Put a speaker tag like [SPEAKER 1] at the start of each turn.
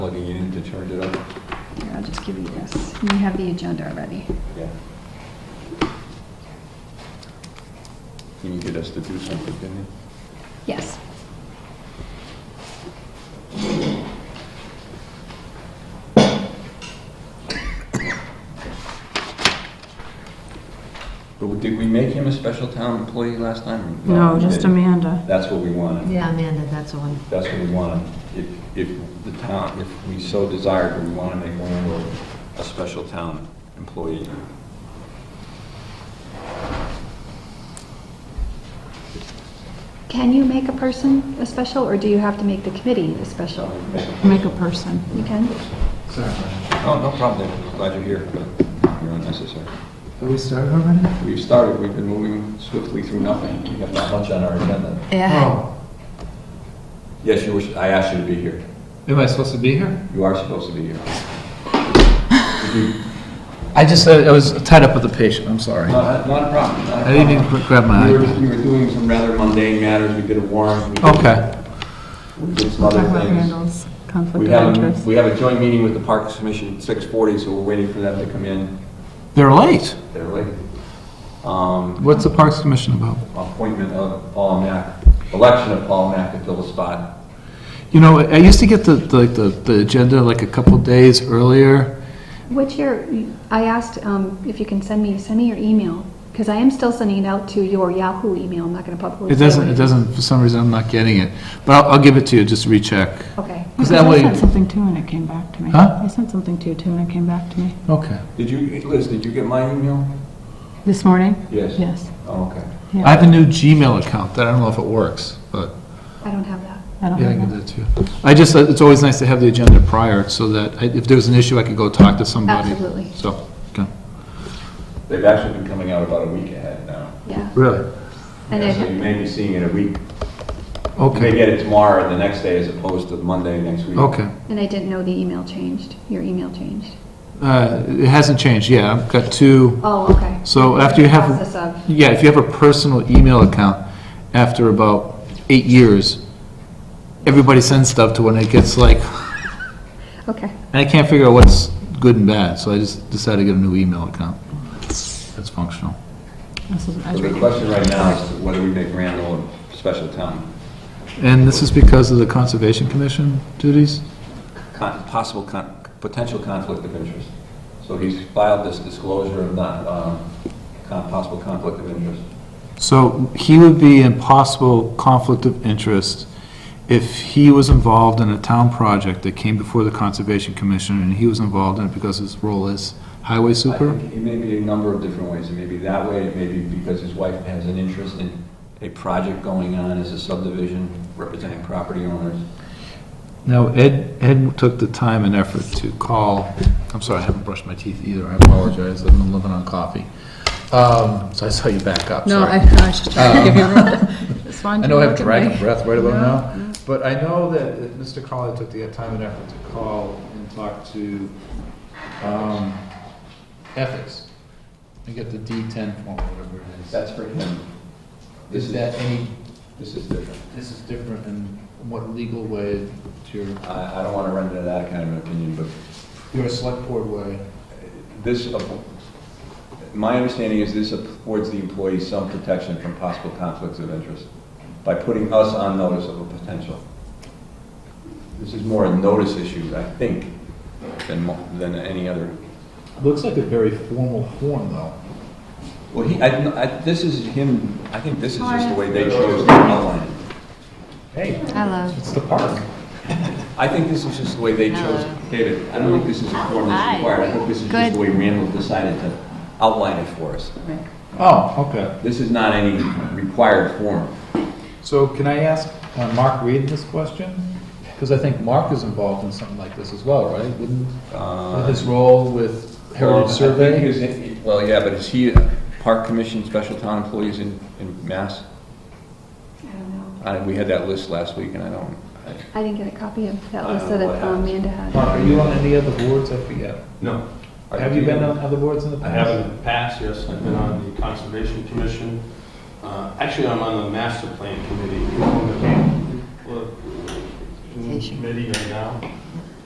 [SPEAKER 1] plugging it in to charge it up.
[SPEAKER 2] Here, I'll just give you this. You have the agenda already.
[SPEAKER 1] Yeah. You needed us to do something, didn't you?
[SPEAKER 2] Yes.
[SPEAKER 1] But did we make him a special town employee last time?
[SPEAKER 3] No,
[SPEAKER 1] we
[SPEAKER 3] just
[SPEAKER 1] didn't.
[SPEAKER 3] Amanda.
[SPEAKER 1] That's what we wanted.
[SPEAKER 4] Yeah, Amanda, that's the one.
[SPEAKER 1] That's what we wanted. If, if the town, if we so desired, we want to make Randall a special town employee.
[SPEAKER 2] Can you make a person a special, or do you have to make the committee a special?
[SPEAKER 3] Make a person.
[SPEAKER 2] You can?
[SPEAKER 1] Oh, no problem, David. glad you're here, but you're unnecessary.
[SPEAKER 5] Have we started already?
[SPEAKER 1] We've started, we've been moving swiftly through nothing. We have not much on our agenda.
[SPEAKER 4] Uh-huh.
[SPEAKER 5] Oh,
[SPEAKER 1] Yes, you wish, I asked you to be here.
[SPEAKER 5] am I supposed to be here?
[SPEAKER 1] You are supposed to be here.
[SPEAKER 5] I just, uh, I was tied up with a patient, I'm sorry.
[SPEAKER 1] Not, not a problem, not a
[SPEAKER 5] I didn't
[SPEAKER 1] problem.
[SPEAKER 5] even qu- grab my
[SPEAKER 1] We were,
[SPEAKER 5] iPad.
[SPEAKER 1] we were doing some rather mundane matters, we did a warrant. we did-
[SPEAKER 5] Okay,
[SPEAKER 1] We did some
[SPEAKER 3] Talk
[SPEAKER 5] Oh,
[SPEAKER 1] other
[SPEAKER 3] about
[SPEAKER 1] things.
[SPEAKER 3] Randall's conflict
[SPEAKER 1] We
[SPEAKER 3] of
[SPEAKER 1] have, a-
[SPEAKER 3] interest.
[SPEAKER 1] we have a joint meeting with the Parks Commission at 6:40, so we're waiting for them to come in.
[SPEAKER 5] they're late.
[SPEAKER 1] They're late. Um,
[SPEAKER 5] What's the Parks Commission about?
[SPEAKER 1] appointment of Paul Mack, election of Paul Mack to fill the spot.
[SPEAKER 5] You know, I used to get the, the- like, the, the agenda like a couple days earlier.
[SPEAKER 2] What's your, I asked um, if you can send me, send me your email, because I am still sending it out to your Yahoo email, I'm not going to publicly.
[SPEAKER 5] It doesn't, it doesn't, for some reason, I'm not getting it. But I'll, I'll give it to you, just to recheck.
[SPEAKER 2] Okay.
[SPEAKER 5] Is that
[SPEAKER 3] I
[SPEAKER 5] what
[SPEAKER 3] sent
[SPEAKER 5] you,
[SPEAKER 3] something too and it came back to me.
[SPEAKER 5] Huh?
[SPEAKER 3] I sent something to you too and it came back to me.
[SPEAKER 5] okay.
[SPEAKER 1] Did you, Liz, did you get my email?
[SPEAKER 3] This morning?
[SPEAKER 1] Yes.
[SPEAKER 3] Yes.
[SPEAKER 1] Oh, okay.
[SPEAKER 5] I have a new Gmail account that I don't know if it works, but
[SPEAKER 2] I don't have that.
[SPEAKER 3] I don't
[SPEAKER 5] yeah, I
[SPEAKER 3] have
[SPEAKER 5] can
[SPEAKER 3] that.
[SPEAKER 5] do that too. I just, uh, it's always nice to have the agenda prior so that I- if there was an issue, I could go talk to somebody.
[SPEAKER 2] Absolutely.
[SPEAKER 5] So, okay.
[SPEAKER 1] They've actually been coming out about a week ahead now.
[SPEAKER 2] Yeah.
[SPEAKER 5] Really?
[SPEAKER 2] And
[SPEAKER 1] Yeah, So you
[SPEAKER 2] it,
[SPEAKER 1] may be seeing it a week, you may
[SPEAKER 5] Okay,
[SPEAKER 1] get it tomorrow or the next day as opposed to Monday next week.
[SPEAKER 5] okay.
[SPEAKER 2] and I didn't know the email changed, your email changed.
[SPEAKER 5] Uh, It hasn't changed, yeah, I've got two,
[SPEAKER 2] Oh, okay.
[SPEAKER 5] so after you have,
[SPEAKER 2] Process of,
[SPEAKER 5] yeah, if you have a personal email account, after about eight years, everybody sends stuff to when it gets like,
[SPEAKER 2] okay.
[SPEAKER 5] and I can't figure out what's good and bad, so I just decided to get a new email account that's functional.
[SPEAKER 3] This is- I
[SPEAKER 1] So the question right now is whether we make Randall a special town,
[SPEAKER 5] And this is because of the Conservation Commission duties?
[SPEAKER 1] con- possible, con- potential conflict of interest. So he's filed this disclosure of not, um, con- possible conflict of interest.
[SPEAKER 5] So he would be in possible conflict of interest if he was involved in a town project that came before the Conservation Commission and he was involved in it because his role is highway
[SPEAKER 1] I
[SPEAKER 5] super?
[SPEAKER 1] think It may be a number of different ways. It may be that way, it may be because his wife has an interest in a project going on as a subdivision representing property owners.
[SPEAKER 5] Now, Ed, Ed took the time and effort to call, I'm sorry, I haven't brushed my teeth either, I apologize, I've been living on coffee. Um, so I saw you back up,
[SPEAKER 3] No,
[SPEAKER 5] sorry. Uh,
[SPEAKER 3] I, I was just trying to give you room. Just wanted
[SPEAKER 5] I
[SPEAKER 3] you
[SPEAKER 5] know I
[SPEAKER 3] to
[SPEAKER 5] have
[SPEAKER 3] look at
[SPEAKER 5] dragon
[SPEAKER 3] me.
[SPEAKER 5] breath right about
[SPEAKER 3] No,
[SPEAKER 5] now, but I know that that Mr. Crowley took the time and effort to call and talk to um, ethics and get the D10 form, whatever it is.
[SPEAKER 1] That's for him. This
[SPEAKER 5] Is that any,
[SPEAKER 1] This is different.
[SPEAKER 5] this is different in what legal way, to your,
[SPEAKER 1] I, I don't want to run into that kind of an opinion, but
[SPEAKER 5] your select board way?
[SPEAKER 1] this, app- my understanding is this affords the employee some protection from possible conflicts of interest by putting us on notice of a potential. This is more a notice issue, I think, than, mo- than any other.
[SPEAKER 5] Looks like a very formal form, though.
[SPEAKER 1] Well, he, I, I, this is him, I think this is just the way they chose to outline it.
[SPEAKER 5] Hey,
[SPEAKER 4] Hello.
[SPEAKER 5] it's the park.
[SPEAKER 1] I think this is just the way they chose, David, I don't think this is a form that's required. I think this is just the way Randall decided to outline it for us.
[SPEAKER 5] Oh, okay.
[SPEAKER 1] This is not any required form.
[SPEAKER 5] So can I ask uh, Mark Reed this question? Because I think Mark is involved in something like this as well, right? Wouldn't,
[SPEAKER 1] Uh,
[SPEAKER 5] with his role with
[SPEAKER 1] Well, I
[SPEAKER 5] Heritage
[SPEAKER 1] think
[SPEAKER 5] Survey?
[SPEAKER 1] he was in- Well, yeah, but is he Park Commission special town employees in, in Mass?
[SPEAKER 2] I don't know.
[SPEAKER 1] I, we had that list last week and I don't, I-
[SPEAKER 2] I didn't get a copy of that
[SPEAKER 1] I
[SPEAKER 2] list
[SPEAKER 1] don't know
[SPEAKER 2] that
[SPEAKER 1] what
[SPEAKER 2] um, Amanda had.
[SPEAKER 5] Mark, Uh, are you on any other boards? I forget.
[SPEAKER 6] No,
[SPEAKER 5] Have you been on other boards in the
[SPEAKER 6] I
[SPEAKER 5] past?
[SPEAKER 6] haven't in the past, yes, I've been on the Conservation Commission. Uh, Actually, I'm on the Master Plan Committee, We're on the- we're in committee right now.